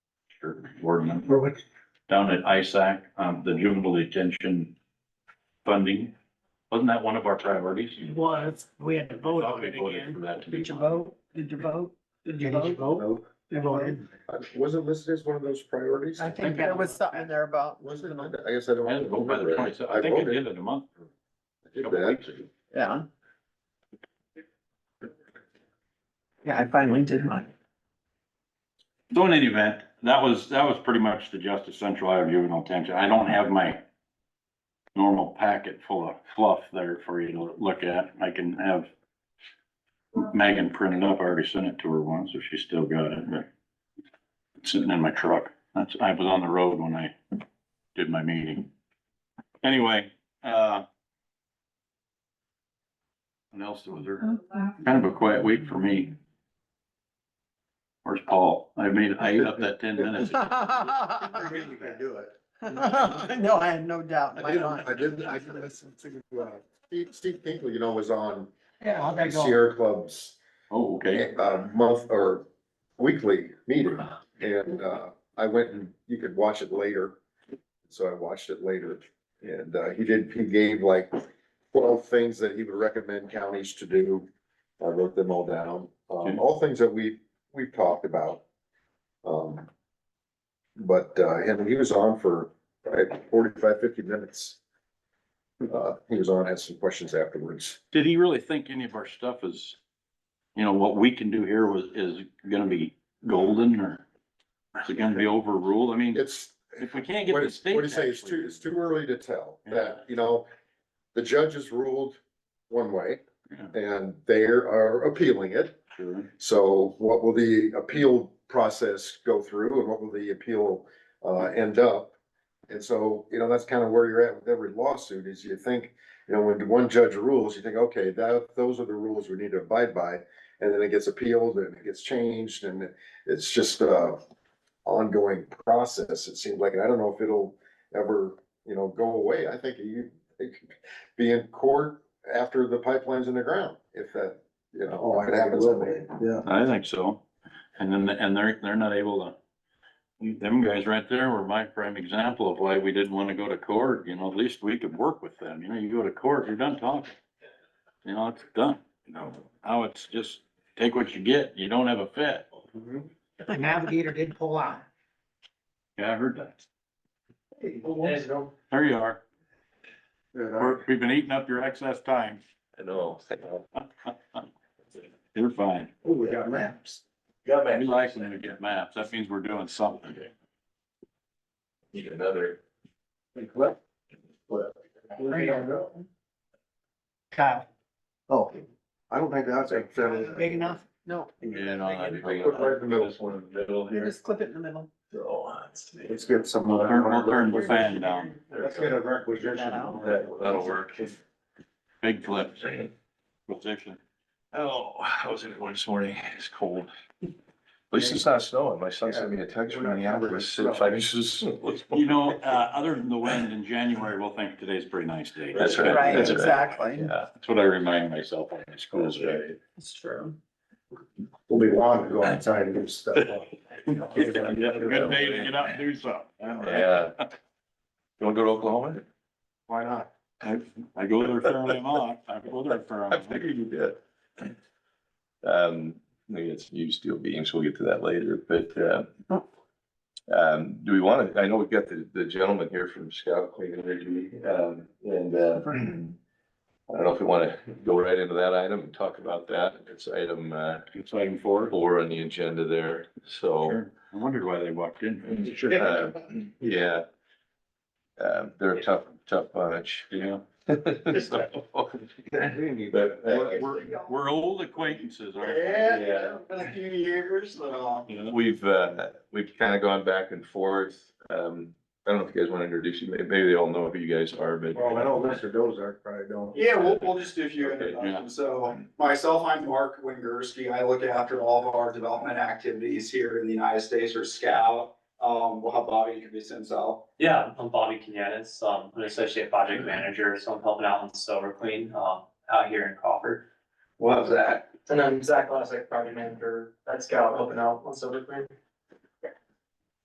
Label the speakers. Speaker 1: board member
Speaker 2: Or what?
Speaker 1: down at ISAC, um, the juvenile detention funding. Wasn't that one of our priorities?
Speaker 3: It was, we had to
Speaker 1: I
Speaker 3: vote
Speaker 1: thought
Speaker 3: on
Speaker 1: we
Speaker 3: it
Speaker 1: voted for
Speaker 3: again.
Speaker 1: that to be.
Speaker 2: Did you vote? Did you vote? Did you vote?
Speaker 3: vote?
Speaker 2: They voted.
Speaker 4: Was it listed as one of those priorities?
Speaker 2: I
Speaker 1: think
Speaker 2: think
Speaker 1: there
Speaker 2: that
Speaker 5: There was
Speaker 2: was,
Speaker 5: something there about.
Speaker 4: Was it? I guess I
Speaker 1: I had to
Speaker 4: don't.
Speaker 1: vote by the
Speaker 4: remember.
Speaker 1: twenty, I think at the end of the month.
Speaker 4: did
Speaker 1: couple
Speaker 4: that.
Speaker 1: weeks ago.
Speaker 5: Yeah. Yeah, I finally did mine.
Speaker 1: So in any event, that was, that was pretty much the Justice Central Iowa Juvenile Detention. I don't have my normal packet full of fluff there for you to look at. I can have Megan print it up. I already sent it to her once, if she still got it, but it's sitting in my truck. That's, I was on the road when I did my meeting. Anyway, uh, what else was there? Kind of a quiet week for me. Where's Paul? I made, I ate up that ten minutes.
Speaker 4: You can do it.
Speaker 5: No, I had no doubt in
Speaker 4: I
Speaker 5: my
Speaker 4: did,
Speaker 5: mind.
Speaker 4: I did, I did listen to, uh, Steve, Steve Pinkley, you know, was on
Speaker 2: yeah, how'd that go?
Speaker 4: Sierra Club's
Speaker 1: Oh, okay.
Speaker 4: uh, month or weekly meeting. And, uh, I went and you could watch it later. So I watched it later and, uh, he did, he gave like twelve things that he would recommend counties to do. I wrote them all down,
Speaker 1: Okay.
Speaker 4: um, all things that we, we've talked about. Um, but, uh, and he was on for uh, 45, 50 minutes. Uh, he was on, had some questions afterwards.
Speaker 1: Did he really think any of our stuff is, you know, what we can do here was, is gonna be golden or is it gonna be overruled? I mean,
Speaker 4: It's,
Speaker 1: if we can't get
Speaker 4: What
Speaker 1: the
Speaker 4: what
Speaker 1: state.
Speaker 4: do you say? It's
Speaker 1: actually-
Speaker 4: too, it's too early to tell
Speaker 1: Yeah.
Speaker 4: that, you know, the judge has ruled one way
Speaker 1: Yeah.
Speaker 4: and they are appealing it.
Speaker 1: Sure.
Speaker 4: So what will the appeal process go through and what will the appeal uh end up? And so, you know, that's kind of where you're at with every lawsuit is you think, you know, when one judge rules, you think, okay, that, those are the rules we need to abide by. And then it gets appealed and it gets changed and it's just a ongoing process. It seems like, and I don't know if it'll ever, you know, go away. I think you it could be in court after the pipeline's in the ground, if that, you know.
Speaker 6: Oh,
Speaker 4: if
Speaker 6: I
Speaker 4: it
Speaker 6: think it
Speaker 4: happens
Speaker 6: will
Speaker 4: that way.
Speaker 6: be, yeah.
Speaker 1: I think so. And then, and they're, they're not able to, them guys right there were my prime example of why we didn't wanna go to court, you know, at least we could work with them. You know, you go to court, you're done talking. You know, it's done. You know, now it's just take what you get. You don't have a fit.
Speaker 3: The navigator did pull out.
Speaker 1: Yeah, I heard that.
Speaker 3: There's no-
Speaker 1: There you are.
Speaker 4: Yeah, I-
Speaker 1: We're- We've been eating up your excess time.
Speaker 6: I know.
Speaker 1: You're fine.
Speaker 6: Oh, we got maps. Got
Speaker 1: We like when we get maps. That means we're doing something.
Speaker 6: Need another.
Speaker 3: Kyle,
Speaker 6: Oh.
Speaker 4: I don't think that's a
Speaker 3: big enough?
Speaker 5: No,
Speaker 1: Yeah, no, I-
Speaker 4: Put right in the middle.
Speaker 6: This one in the middle
Speaker 5: you
Speaker 6: here.
Speaker 5: just clip it in the middle.
Speaker 6: So, that's-
Speaker 4: Let's get some.
Speaker 1: We'll turn, we'll turn the fan down.
Speaker 6: there
Speaker 4: Let's
Speaker 6: we
Speaker 4: get a
Speaker 6: go.
Speaker 4: requisition.
Speaker 5: That out.
Speaker 6: That, that'll work.
Speaker 1: Big flips. Position.
Speaker 6: Oh, how was everyone this morning? It's cold. At least it's not snowing. My son sent me a text from Minneapolis, said five inches.
Speaker 1: You know, uh, other than the wind in January, we'll think today's a pretty nice day.
Speaker 6: That's right.
Speaker 5: Right,
Speaker 6: That's
Speaker 5: exactly.
Speaker 6: Yeah.
Speaker 1: That's what I remind myself on the school's day.
Speaker 5: It's true.
Speaker 4: We'll be long to go outside and do stuff.
Speaker 1: Good day to get out and do something.
Speaker 6: Yeah. You wanna go to Oklahoma?
Speaker 4: Why not?
Speaker 1: I, I go there fairly often. I go there
Speaker 6: I
Speaker 1: fairly.
Speaker 6: figured you did. Um, maybe it's new steel beams, we'll get to that later, but, uh, um, do we want to, I know we've got the, the gentleman here from Scout Clean Energy, um, and, uh, I don't know if we want to go right into that item and talk about that. It's item, uh,
Speaker 1: It's item four.
Speaker 6: four on the agenda there, so.
Speaker 1: Sure. I wondered why they walked in.
Speaker 6: uh, Yeah. Uh, they're a tough, tough bunch. uh,
Speaker 1: Yeah.
Speaker 6: So- But, uh,
Speaker 1: We're, we're, we're old acquaintances, aren't we?
Speaker 6: Yeah.
Speaker 4: been a few years, so.
Speaker 1: You know?
Speaker 6: We've, uh, we've kind of gone back and forth. Um, I don't know if you guys want to introduce you, May- maybe they all know who you guys are, but.
Speaker 4: Well, I know Mr. Dozark probably don't.
Speaker 7: Yeah, we'll, we'll just do a few
Speaker 6: Okay,
Speaker 1: yeah.
Speaker 7: introductions. So myself, I'm Mark Wingersky. I look after all of our development activities here in the United States or SCOW. Um, we'll have Bobby introduce himself.
Speaker 8: Yeah, I'm Bobby Kenyanis, um, I'm an associate project manager, so I'm helping out on Silver Queen, um, out here in Crawford.
Speaker 7: What was that?
Speaker 9: And I'm Zach Lassick, project manager at Scout, helping out on Silver Queen.